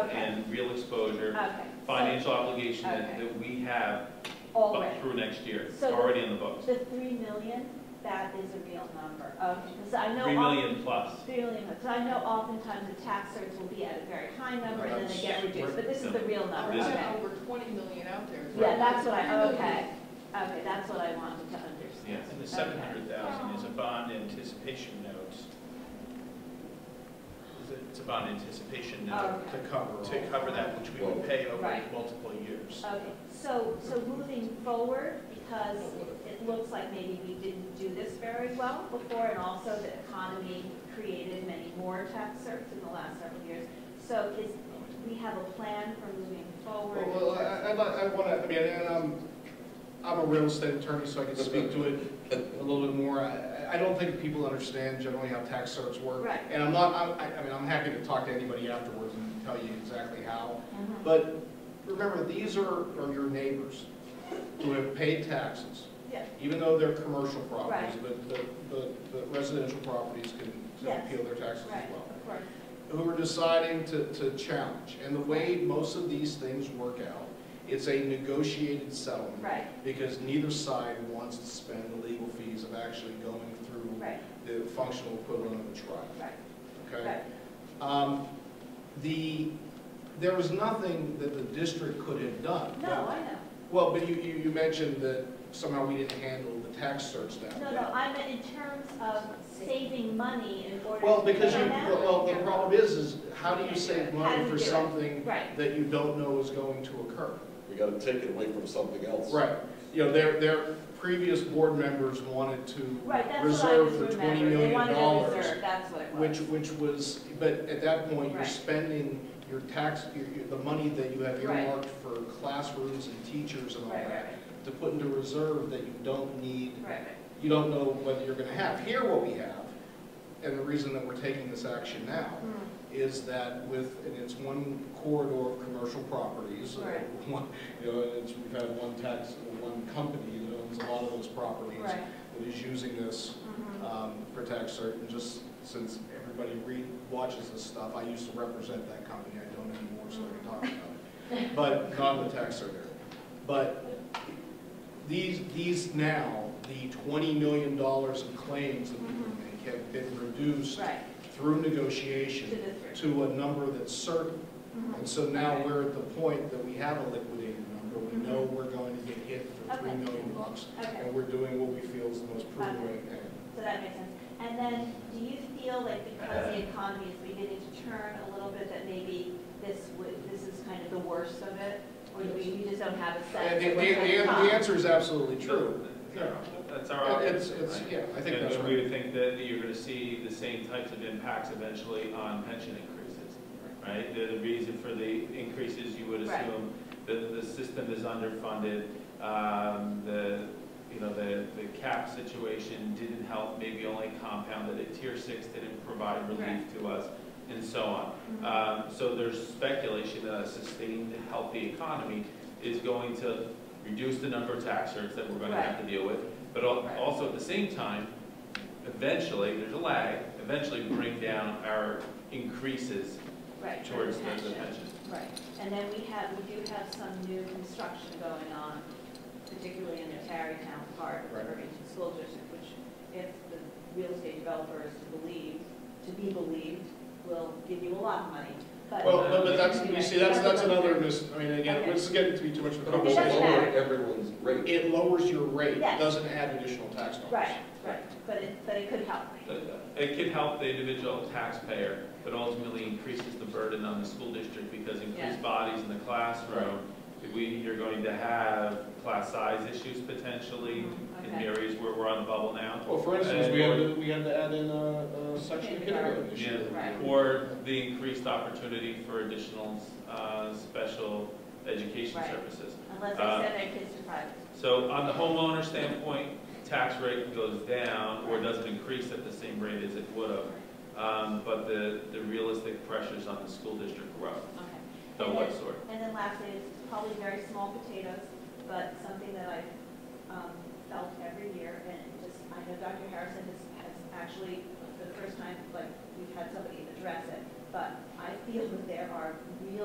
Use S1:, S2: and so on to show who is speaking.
S1: and real exposure,
S2: Okay. so
S1: financial obligation that,
S2: Uh, Okay.
S1: that we have
S2: Already.
S1: up through next year, It's
S2: So-
S1: already in the books.
S2: The three million, that is a real number, okay, because I know.
S1: Three
S2: oft-
S1: million plus.
S2: Three million, because I know oftentimes the tax rates will be at a very high number and then they get reduced, but this is the real number,
S1: This-
S3: We've
S2: okay?
S3: got over 20 million out there.
S2: Yeah, that's what I, okay, okay, that's what I wanted to understand.
S1: Yeah.
S4: And the
S2: Okay.
S4: seven hundred thousand is a bond anticipation note. Is it- It's a bond anticipation note
S2: Oh, Okay.
S4: to, to cover that, which we would pay over
S2: Right.
S4: multiple years.
S2: Okay, so, so moving forward, because it looks like maybe we didn't do this very well before, and also the economy created many more tax certs in the last several years. So is, we have a plan for moving forward?
S5: Well, I, I, I want to, I mean, and I'm, I'm a real estate attorney, so I can speak to it a little bit more. I, I don't think people understand generally how tax certs work.
S2: Right.
S5: And I'm not, I, I mean, I'm happy to talk to anybody afterwards and tell you exactly how.
S2: Mhm.
S5: But remember, these are, are your neighbors who have paid taxes,
S2: Yeah,
S5: even though they're commercial properties, but the, the- the residential properties can can
S2: Yes.
S5: appeal their taxes
S2: right,
S5: as well
S2: of course.
S5: who are deciding to, to challenge. And the way most of these things work out, it's a negotiated settlement.
S2: Right,
S5: Because neither side wants to spend the legal fees of actually going through
S2: right,
S5: the functional equivalent of a trial,
S2: right,
S5: okay?
S2: right.
S5: Um, The, there was nothing that the district could have done.
S2: No, I know.
S5: Well, but you, you, you mentioned that somehow we didn't handle the tax search that
S2: No,
S5: way.
S2: no, I meant in terms of saving money in order to.
S5: Well, because you,
S2: Right now?
S5: well, the problem is, is how do you save
S2: How do
S5: money
S2: you
S5: for
S2: do it?
S5: something
S2: Right,
S5: that you don't know is going to occur.
S6: We gotta take it away from something else.
S5: Right, you know, their, their previous board members wanted to
S2: right, that's what I was
S5: reserve the twenty
S2: remembering. They
S5: million
S2: wanted to
S5: dollars,
S2: reserve, that's what it was.
S5: which, which was, but at that point, you're
S2: Right.
S5: spending your tax, your, your- the money that you have
S2: Right.
S5: earmarked for classrooms and teachers and all
S2: Right, right,
S5: that, to put into reserve that you don't need,
S2: right, right, right.
S5: you don't know whether you're gonna have. Here what we have, and the reason that we're taking this action now,
S2: Mm.
S5: is that with, and it's one corridor of commercial properties. uh,
S2: Right.
S5: one- You know, and it's, we've had one tax, one company that owns a lot of those properties.
S2: Right.
S5: That is using this
S2: Mhm.
S5: um, for tax cert, and just since everybody read, watches this stuff, I used to represent that company, I don't anymore, so I can talk about
S2: Mm-hmm.
S5: it. But not in the tax cert area. But these, these now, the twenty million dollars in claims that we
S2: Mm-hmm.
S5: make have been reduced
S2: Right,
S5: through
S2: to
S5: negotiation
S2: the three.
S5: to a number that's certain.
S2: Mhm.
S5: And so now we're at the point that we have a liquidated number, we know we're going to get hit for three
S2: Mm-hmm. Okay.
S5: million bucks,
S2: Okay,
S5: and we're doing what we feel is the most prudent way to pay. it.
S2: so that makes sense. And then, do you feel like because the economy is beginning to turn a little bit, that maybe this would, this is kind of the worst of it? Or do you you just don't have a sense?
S5: And the,
S2: of what's
S5: the,
S2: gonna
S5: the-
S2: come?
S5: the answer is absolutely true.
S1: Yeah, That's our.
S5: It's, it's, yeah, I think that's
S1: And we
S5: right.
S1: would think that you're gonna see the same types of impacts eventually on pension increases, right? The, the reason for the increases, you would
S2: Right.
S1: assume that the system is underfunded, um, the, you know, the, the cap situation didn't help, maybe only compounded it, tier six didn't provide relief
S2: Right.
S1: to us, and so on.
S2: Mhm.
S1: Um, so there's speculation that a sustained, healthy economy is going to reduce the number of tax rates that we're gonna have to deal with, but al-
S2: Right.
S1: also at the same time, eventually, there's a lag, eventually bring down our increases
S2: Right,
S1: towards the the
S2: pension.
S1: pension.
S2: Right, and then we have, we do have some new construction going on, particularly in the Tarrytown part of the
S5: Right.
S2: Irvington School District, which if the real estate developer is to believe, to be believed, will give you a lot of money, but.
S5: Well, but, but that's, you see, that's, that's another mis, I mean, again,
S2: Okay.
S5: this is getting to be too much of a
S6: But we'll
S2: doesn't
S5: conversation.
S6: lower
S2: matter.
S6: everyone's rate.
S5: It lowers your rate, it
S2: Yes.
S5: doesn't add additional tax dollars.
S2: Right, right, but it, but it could help.
S1: But It can help the individual taxpayer, but ultimately increases the burden on the school district because
S2: Yeah.
S1: increased bodies in the classroom, we, you're going to have class size issues potentially
S2: Mhm,
S1: in
S2: okay.
S1: areas where we're on the bubble now.
S5: Well, for instance, we had, to- we had to add in a, a section of kindergarten this year.
S2: Right.
S1: Or the increased opportunity for additional uh, special education
S2: Right.
S1: services.
S2: Unless they
S1: Uh,
S2: send their kids to private.
S1: So on the homeowner standpoint, tax rate goes down or doesn't increase at the same rate as it would have. Um, But the, the realistic pressures on the school district grow,
S2: Okay.
S1: the
S2: And
S1: what
S2: then-
S1: sort.
S2: And then lastly, it's probably very small potatoes, but something that I've um, felt every year, and it just, I know Dr. Harrison has, has actually, for the first time, like, we've had somebody address it, but I feel that there are real